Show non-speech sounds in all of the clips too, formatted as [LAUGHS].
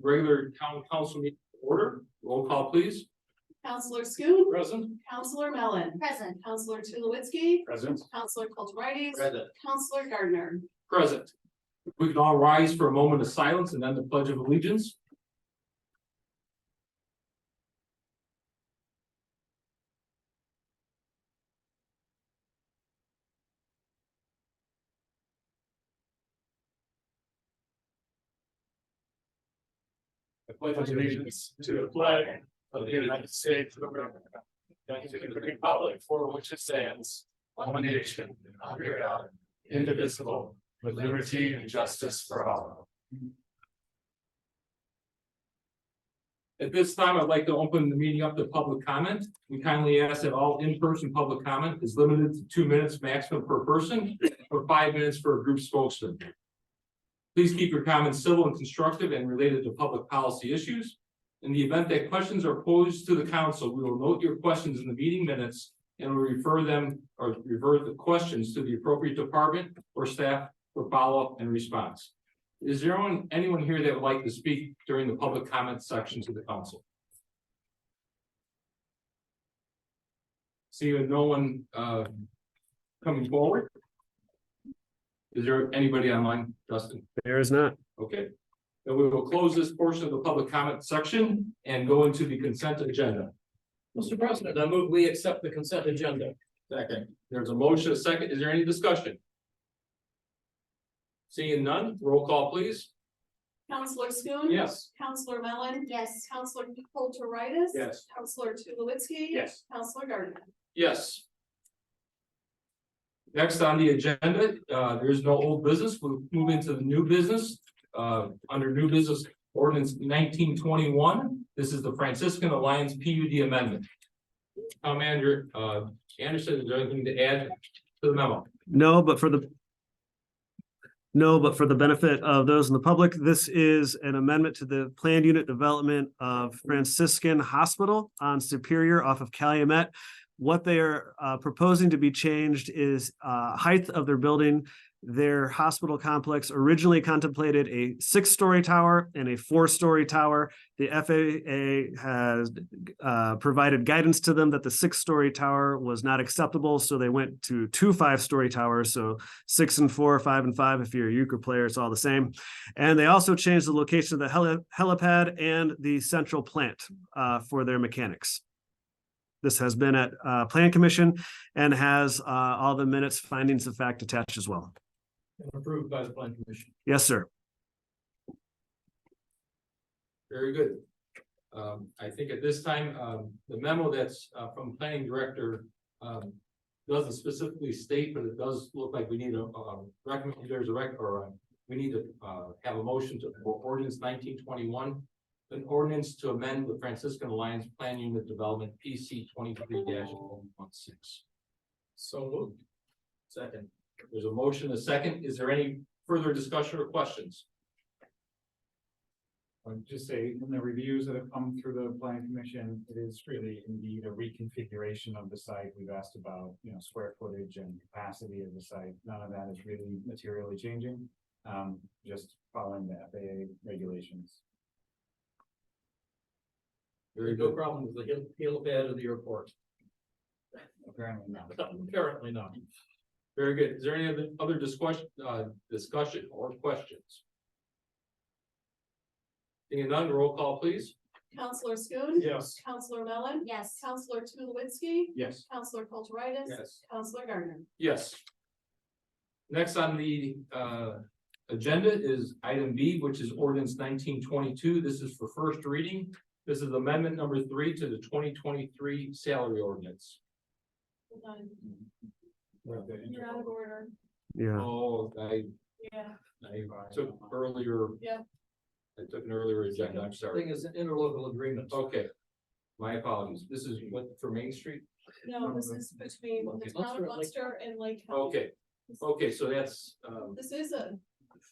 regular town council meeting to order. Roll call, please. Counselor Schoen, Present. Counselor Mellon, Present. Counselor Tulowitzki, Present. Counselor Kulturitis, Present. Counselor Gardner. Present. If We can all rise for a moment of silence and then the pledge of allegiance. I pledge allegiance to the flag of the United States of America. And to the republic for which it stands, one nation, under God, indivisible, with liberty and justice for all. At this time, I'd like to open the meeting up to public comment. We kindly ask that all in-person public comment is limited to two minutes maximum per person or five minutes for a group spokesman. Please keep your comments civil and constructive and related to public policy issues. In the event that questions are posed to the council, we will note your questions in the meeting minutes and will refer them or revert the questions to the appropriate department or staff for follow-up and response. Is there anyone, anyone here that would like to speak during the public comment section to the council? Seeing no one, uh, coming forward? Is there anybody online, Justin? There is not. Okay. Then we will close this portion of the public comment section and go into the consent agenda. Mr. President, I move we accept the consent agenda. Second. There's a motion, a second. Is there any discussion? Seeing none, roll call please. Counselor Schoen. Yes. Counselor Mellon, Yes. Counselor Kulturitis. Yes. Counselor Tulowitzki. Yes. Counselor Gardner. Yes. Next on the agenda, uh, there is no old business. We'll move into the new business. Uh, under new business ordinance nineteen twenty-one, this is the Franciscan Alliance PUD amendment. Town manager, uh, Anderson, is there anything to add to the memo? No, but for the no, but for the benefit of those in the public, this is an amendment to the planned unit development of Franciscan Hospital on Superior off of Calumet. What they are uh, proposing to be changed is uh, height of their building. Their hospital complex originally contemplated a six-story tower and a four-story tower. The FAA has uh, provided guidance to them that the six-story tower was not acceptable, so they went to two five-story towers. So six and four, five and five. If you're a euchre player, it's all the same. And they also changed the location of the heli- helipad and the central plant uh, for their mechanics. This has been at uh, Plan Commission and has uh, all the minutes, findings of fact attached as well. Approved by the plan commission. Yes, sir. Very good. Um, I think at this time, um, the memo that's, uh, from planning director, um, doesn't specifically state, but it does look like we need a, um, recommend, there's a rec, or, uh, we need to, uh, have a motion to, for ordinance nineteen twenty-one. An ordinance to amend the Franciscan Alliance Plan Unit Development PC twenty-three 16 So moved. Second. There's a motion, a second. Is there any further discussion or questions? I would just say, in the reviews that have come through the planning commission, it is really indeed a reconfiguration of the site. We've asked about, you know, square footage and capacity of the site. None of that is really materially changing, um, just following the FAA regulations. Very No good. problem with the hill, hill bed of the airport. Apparently not. [LAUGHS] Apparently not. Very good. Is there any other- other discussion, uh, discussion or questions? Seeing none, roll call please. Counselor Schoen. Yes. Counselor Mellon, Yes. Counselor Tulowitzki. Yes. Counselor Kulturitis. Yes. Counselor Gardner. Yes. Next on the, uh, agenda is item B, which is ordinance nineteen twenty-two. This is for first reading. This is amendment number three to the twenty twenty-three salary ordinance. Hold on, With the You're out of order. Yeah. Oh, I, Yeah. I took earlier. Yeah. I took an earlier agenda, I'm sorry. Thing is an interlocal agreement. Okay. My apologies. This is what for Main Street? No, this is between the Okay, town Munster, of like- Munster and Lake County. Okay, okay, so that's, um. This is a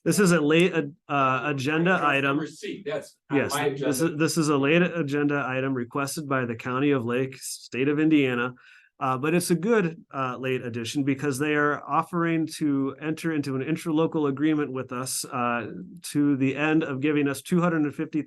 This is a late uh, agenda item. Number C, that's. on Yes, my this agenda. is, this is a late agenda item requested by the County of Lake, State of Indiana. Uh, but it's a good, uh, late addition because they are offering to enter into an interlocal agreement with us, uh, to the end of giving us two hundred and fifty